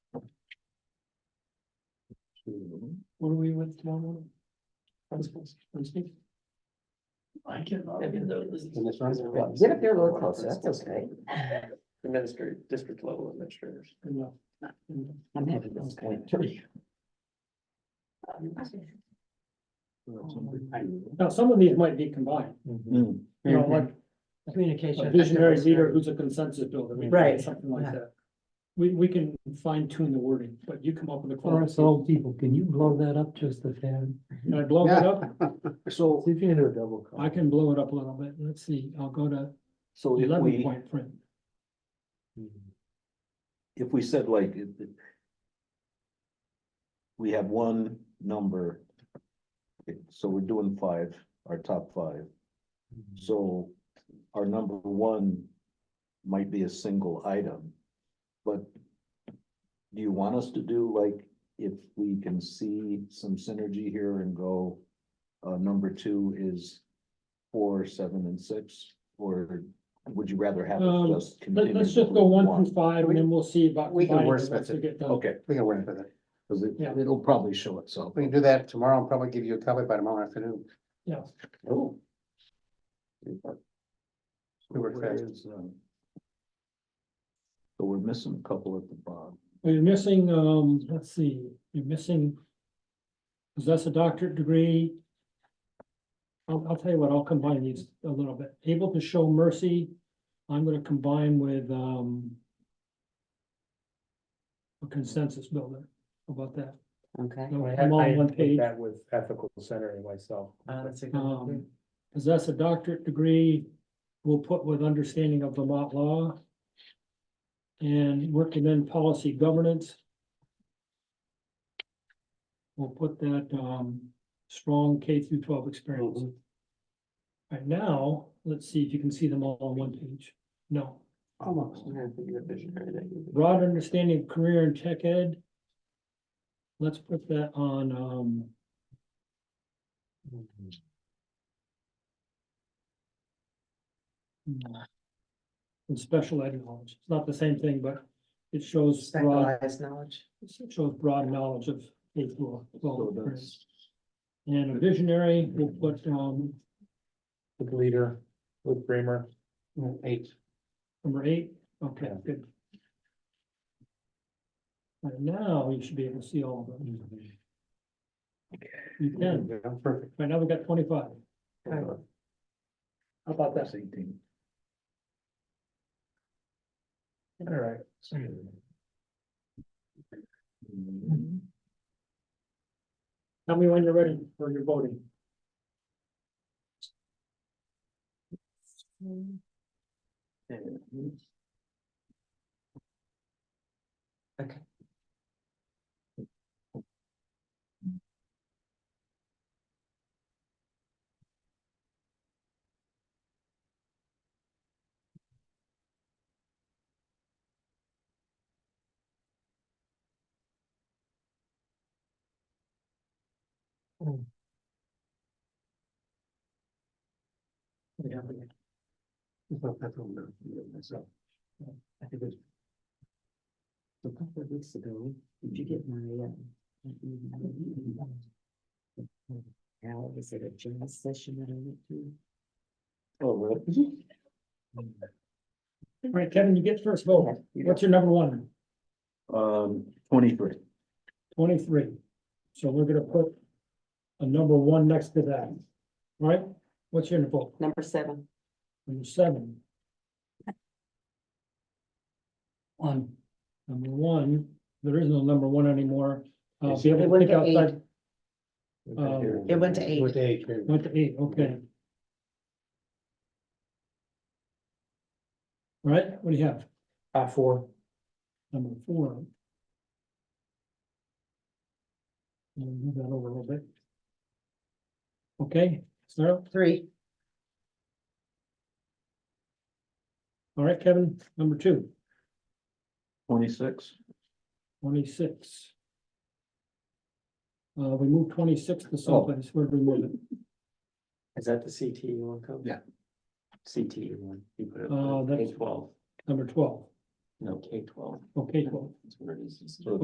Hmm, were we with um, town? Principals, principals? I can. The in this room? Yeah. Yeah, Get up there a little closer, Oh, that's okay. Administrator, district level administrators. uh, I'm happy that's going to. Now, some of these might be combined, Mm-hmm. you know, like Communication. Mhm. a visionary leader who's a consensus builder. we can do Right. Something like that. We, we can fine tune the wording, but you come up with a. For us quality. old people, can you blow that up just a tad? Can I blow it up? So, See if you can do a double I call. can blow it up a little bit. Let's see, I'll go to so if eleven we, point print. if we said like. it- it- We have one number. Okay, So we're doing five, our top five, so our number one might be a single item. But do you want us to do like, if we can see some synergy here and go, uh, number two is four, seven and six? Or would you rather have Um, it just? Let, continue us just with go one through five and then we'll see about. We can combining wordsmith once we it. get done. Okay, We can work with it. cause it, Yeah. it'll probably show itself. We can do that tomorrow and probably give you a copy by tomorrow afternoon. Yeah. Oh. We work Where fast. is, um, So we're missing a couple at the bottom. Well, You're missing, um, let's see, you're missing. Possess a doctorate degree. I'll, I'll tell you what, I'll combine these a little bit. Able to show mercy, I'm gonna combine with, um. A consensus builder, How about that. Okay. I'm on one page, with ethical centering myself. um, possess a doctorate degree, we'll put with understanding of Vermont law. And working in policy governance. We'll put that, um, strong K through twelve experience. Right now, let's see if you can see them all on one page. No, Almost. I think you're a visionary, that you- broad understanding of career and tech ed. Let's put that on, um, and special ed knowledge. It's not the same thing, but it shows broad, knowledge. it shows broad knowledge of K through So twelve. that's. And a visionary, we'll put, um, With leader, with Bramer. Eight. Number eight, okay, good. Right now, you should be able to see all of them. You can, Yeah, Perfect. right now we've got twenty-five. How about that? Eighteen. All right. Mm-hmm. Tell me when you're ready for your voting. Yeah, we can. It's not that long, no, you know, myself. I think it's- A couple of weeks ago, did you get my, uh, was it a joint session that I went to? Oh, really? All right, Kevin, you get first vote. What's your number one? Um, twenty-three. Twenty-three. So we're gonna put a number one next to that. All Right? What's your vote? Number seven. Number seven. One. Number one, there is no number one anymore. Uh, be able to think outside, Um, It went to eight. Went to eight. went to eight, okay. All Right, what do you have? Uh, four. Number four. We'll Move that over a little bit. Okay, so, Three. all right, Kevin, number two, Twenty-six. twenty-six. Uh, we moved twenty-six to someplace, where did we move it? Is that the CTE one code? Yeah. CTE one. You put it Uh, on K that's- twelve, Number twelve, no, K twelve, okay, twelve. that's where it is.